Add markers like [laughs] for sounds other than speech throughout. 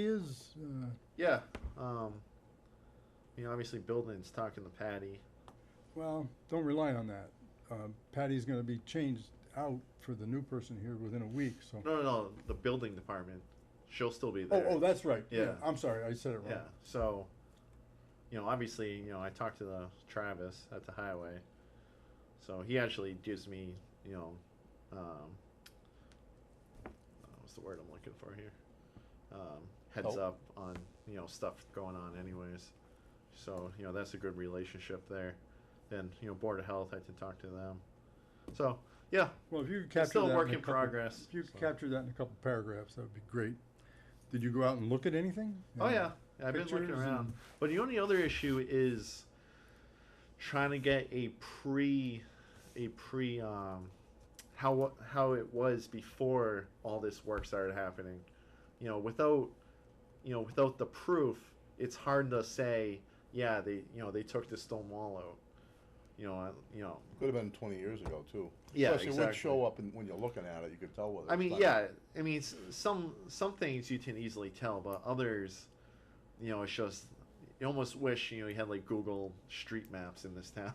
ideas. Uh, Yeah. Um, you know, obviously buildings talking to Patty. well, don't rely on that. Um, Patty's going to be changed out for the new person here within a week. So. No, no, no. The building department. She'll still be Oh, there. oh, that's right. Yeah. I'm sorry, I said it wrong. Yeah. So, you know, obviously, you know, I talked to the Travis at the highway. So he actually gives me, you know, um, uh, what's the word I'm looking for here? Um, heads Help. up on, you know, stuff going on, anyways. So, you know, that's a good relationship there. Then, you know, Board of Health, I can talk to them. So, yeah, Well, if you could it's capture still that a work a in couple- progress. If you could so. capture that in a couple paragraphs, that would be great. Did you go out and look at anything? Oh yeah, I've been looking pictures around. and- But the only other issue is trying to get a pre, a pre, um, how wa- how it was before all this work started happening. You know, without, you know, without the proof, it's hard to say. Yeah, they, you know, they took the stone wall out. You know, I, you know. Could have been twenty years ago too. Yeah, Plus, it would exactly. show up, and when you're looking at it, you could tell whether. I it's mean, done. yeah. I mean, s- some some things you can easily tell, but others, you know, it's just you almost wish you know you had like Google Street Maps in this [laughs] town.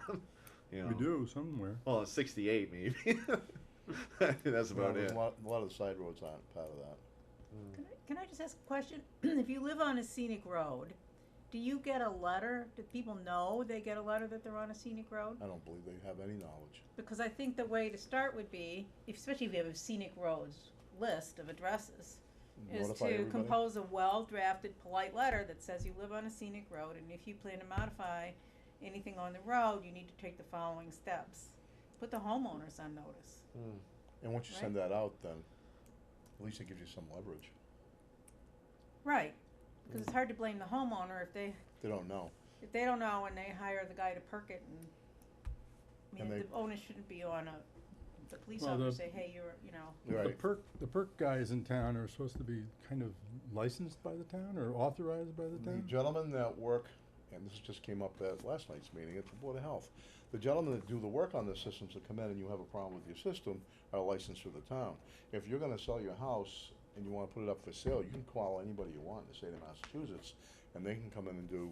you know, Um, We do somewhere. Well, it's sixty-eight, maybe. [laughs] That's Well, about there's it. A lot, a lot of the side roads aren't part of that. Can I- Can I just ask a question? [clears throat] If you live on a scenic road, do you get a letter? Do people know they get a letter that they're on a scenic road? I don't believe they have any knowledge. Because I think the way to start would be, if- especially if you have a scenic roads list of addresses, is Notify to everybody. compose a well-drafted polite letter that says you live on a scenic road and if you plan to modify anything on the road, you need to take the following steps. Put the homeowners on notice. Mm. And once you send that out, then at least it gives you some leverage. Right, because it's hard to blame the homeowner if they They don't know. If they don't know and they hire the guy to perk it and, I And mean, they- the onus shouldn't be on a, the police Well, officer the- say, hey, you're, you know, [laughs] The Right. perk, the perk guys in town are supposed to be kind of licensed by the town or authorized by the The town? gentlemen that work, and this just came up at last night's meeting at the Board of Health, the gentlemen that do the work on the systems that come in and you have a problem with your system are licensed through the town. If you're gonna sell your house and you wanna put it up for sale, you can call anybody you want in the state of Massachusetts, and they can come in and do.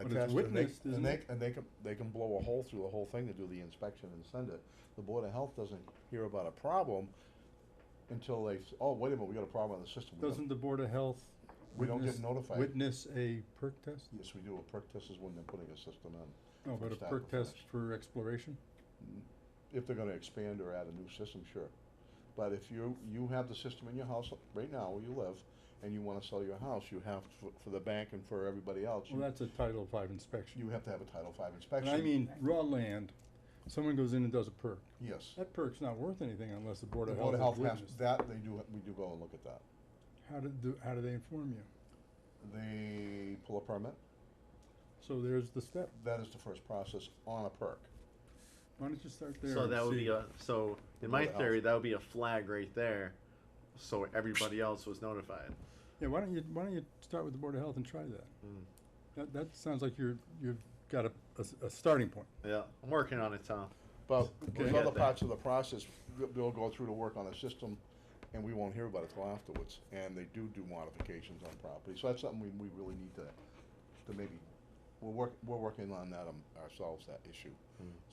a But it's test, and they- witnessed, isn't And they, it? and they can, they can blow a hole through the whole thing to do the inspection and send it. The Board of Health doesn't hear about a problem until they, s- oh, wait a minute, we got a problem on the system. We don't- Doesn't the Board of Health We don't get witness- notified. Witness a perk test? Yes, we do. A perk test is when they're putting a system in. No, Oh, but a Start perk to test finish. for exploration? If they're gonna expand or add a new system, sure. But if you, you have the system in your house right now where you live, and you wanna sell your house, you have, for, for the bank and for everybody else, Well, you, that's a Title Five inspection. you have to have a Title Five And inspection. I mean, raw land, someone goes in and does a perk. Yes. That perk's not worth anything unless the Board The of Board of Health Health has has, witnessed. that, they do, we do go and look at that. How do, do- how do they inform you? They pull a permit. So there's the step. That is the first process on a perk. Why don't you start there? So and that would be see. a so in Well, my that helps. theory that would be a flag right there, so everybody else was notified. Yeah, why don't you, why don't you start with the Board of Health and try that? Mm. That, that sounds like you're, you've got a, a s- a starting point. Yeah, I'm working on it, Tom. But Okay. there's Get other that. parts of the process, they'll- they'll go through to work on a system, and we won't hear about it till afterwards, and they do do modifications on property, so that's something we, we really need to, to maybe, we're work, we're working on that um, ourselves, that issue,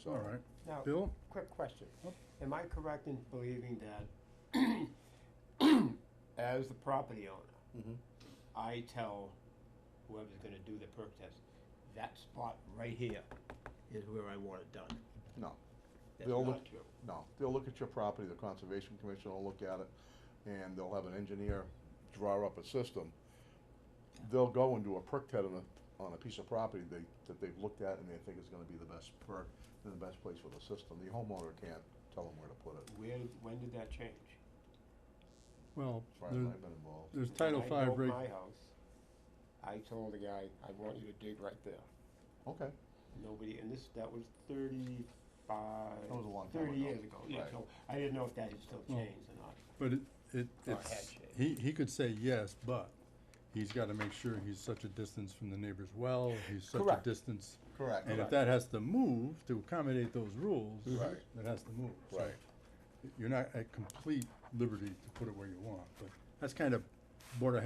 so. All right. Now, Bill? quick question. Yep. Am I correct in believing [coughs] that as the property owner, Mhm. I tell whoever's gonna do the perk test, that spot right here is where I want it done? No, That's They'll not look- true. no, they'll look at your property, the Conservation Commission will look at it, and they'll have an engineer draw up a system. They'll go and do a perk test on a, on a piece of property they, that they've looked at and they think is gonna be the best perk, and the best place for the system, the homeowner can't tell them where to put it. Where, when did that change? Well, As far as there, I've been involved. there's Title When I Five, built right? my house, I told the guy, I want you to dig right there. Okay, Nobody, and this, that was thirty-five. That was a long time Thirty ago. years ago, yeah, Right. so I didn't know if that had still Well, changed or not. But it, it, Or it's, had he, he could say yes, but he's gotta make sure he's such a distance from the neighbor's well, he's such a Correct. distance. correct. And if Correct. that has to move to accommodate those rules, Right. that has to move. So Right. You're not at complete liberty to put it where you want, but that's kind of Board of